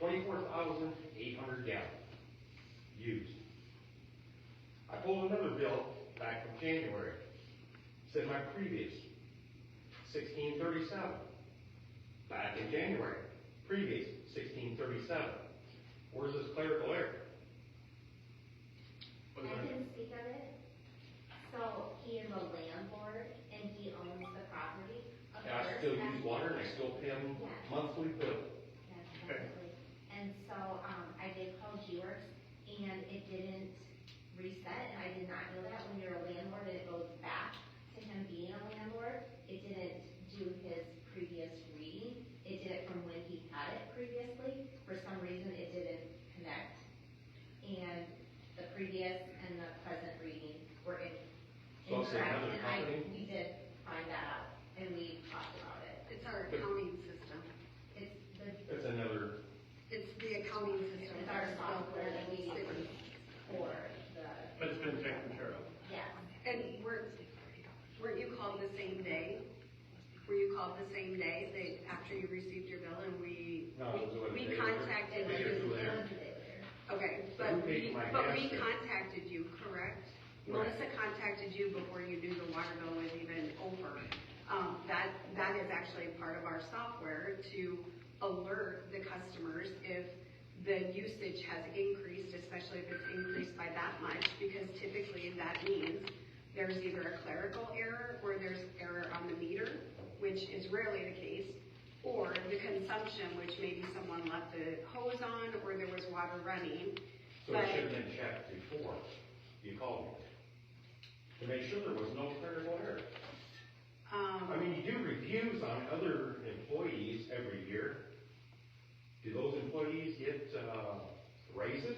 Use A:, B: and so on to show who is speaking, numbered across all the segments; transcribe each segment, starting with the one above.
A: twenty-four thousand eight hundred gallons used. I pulled another bill back from January, said my previous, sixteen thirty-seven, back in January, previous sixteen thirty-seven. Where's this clerical error?
B: I didn't speak of it. So he is a landlord and he owns the property. of
A: And I
B: course,
A: still
B: that's-
A: use water and I still pay them monthly bill.
B: Yes,
A: Okay.
B: definitely. And so, um, I did call G-Works and it didn't reset and I did not know that when you're a landlord and it goes back to him being a landlord, it didn't do his previous reading. It did it from when he had it previously. For some reason, it didn't connect. And the previous and the present reading were in-
A: So it's
B: incorrect.
A: another
B: And I,
A: company?
B: we did find that out and we talked about it.
C: It's our accounting system.
B: It's the
A: That's another
C: It's the accounting system.
B: It's our software that we use for the,
D: But it's been taken care of.
B: yeah.
C: And weren't, weren't you called the same day? Were you called the same day that after you received your bill and we,
A: No, it was a
C: we
A: day
C: contacted
A: later. Day or two
C: you?
A: later.
C: Okay,
A: So who
C: but
A: paid
C: we,
A: my
C: but
A: gas
C: we
A: bill?
C: contacted you, correct?
A: Right.
C: Melissa contacted you before you knew the water bill was even over. Um, that, that is actually part of our software to alert the customers if the usage has increased, especially if it's increased by that much, because typically that means there's either a clerical error or there's error on the meter, which is rarely the case, or the consumption, which maybe someone left the hose on or there was water running,
A: So it should have been checked before you called me. To make sure there was no clerical error.
C: Um,
A: I mean, you do reviews on other employees every year. Do those employees get, uh, raises?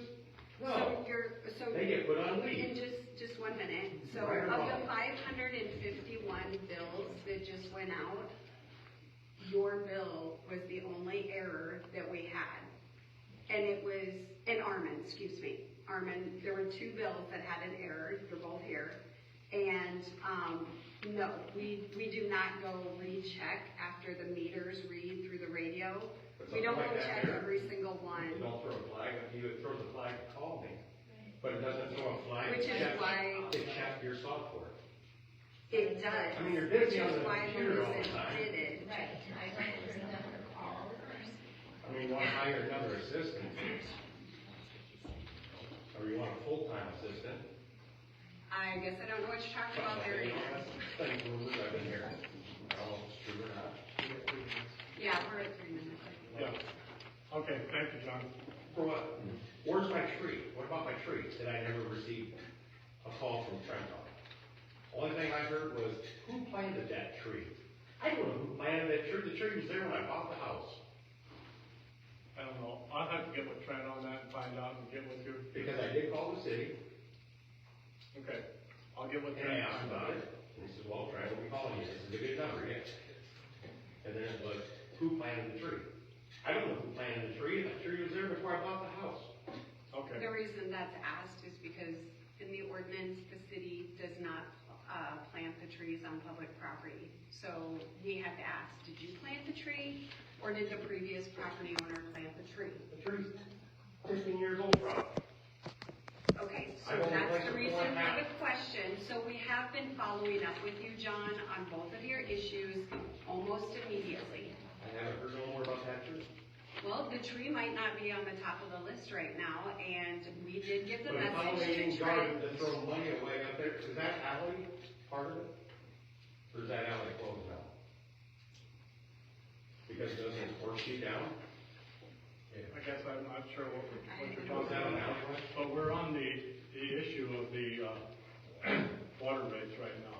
C: so
A: No,
C: you're, so,
A: they get put on
C: in
A: leave.
C: just, just one minute, so
A: Right or
C: of
A: wrong?
C: the five hundred and fifty-one bills that just went out, your bill was the only error that we had. And it was, and Armin, excuse me, Armin, there were two bills that had an error, they're both here. And, um, no, we, we do not go recheck after the meters read through the radio.
A: But
C: We
A: something
C: don't go
A: like that
C: check
A: there.
C: every single one.
A: You don't throw a flag, you throw the flag and call me, but it doesn't throw a flag.
C: Which is
A: to check-
C: why-
A: To check your software.
C: It does.
A: I mean, you're busy on the
C: Which is why
A: computer all the
C: Melissa
A: time.
C: did it.
B: Right, I went through the call.
A: I mean, you wanna hire another assistant? Or you want a full-time assistant?
C: I guess I don't know what you're talking about there. Ian.
A: Thank you, Liz, I've been here. I don't know if it's true or not.
C: Yeah, we're at three minutes.
D: Yeah. Okay, thank you, John.
A: For what? Where's my tree? What about my tree that I never received a call from Trenton? Only thing I heard was, who planted that tree? I don't know who planted that tree. The tree was there when I bought the house.
D: I don't know, I'll have to get with Trent on that and find out and get with you.
A: Because I did call the city
D: Okay, I'll get with
A: and I
D: Trent.
A: asked about it. And he says, well, Trent, we'll be calling you. This is a good number, yes. And then it was, who planted the tree? I don't know who planted the tree. That tree was there before I bought the house.
D: Okay,
C: The reason that's asked is because in the ordinance, the city does not, uh, plant the trees on public property. So we have to ask, did you plant the tree or did the previous property owner plant the tree?
A: The tree's fifteen years old, probably.
C: Okay, so
A: I've only
C: that's
A: placed
C: the
A: it
C: reason
A: one
C: for
A: half.
C: the question. So we have been following up with you, John, on both of your issues almost immediately.
A: I haven't heard no more about that tree.
C: Well, the tree might not be on the top of the list right now, and we did give the
A: But if I was
C: message
A: in
C: to Trent.
A: garden to throw money away up there, is that alley part of it? Or is that alley closed now? Because it doesn't force you down?
D: I guess I'm not sure what we're, what you're
A: Was that
D: talking
A: an
D: about.
A: alleyway?
D: But we're on the, the issue of the, uh, water rates right now.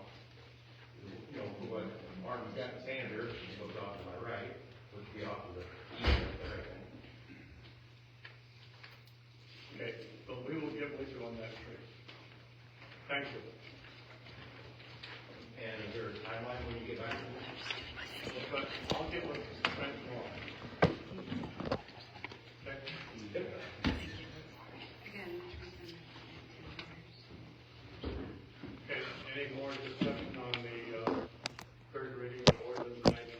A: You know, what, Martin Scott Sanders goes off to my right, which would be off to the east of there.
D: Okay, but we will get with you on that tree. Thank you.
A: And is there a timeline when you get back to me?
D: But I'll get with Trent tomorrow. Okay?
C: Again, Trent.
D: Okay, any more discussion? uh,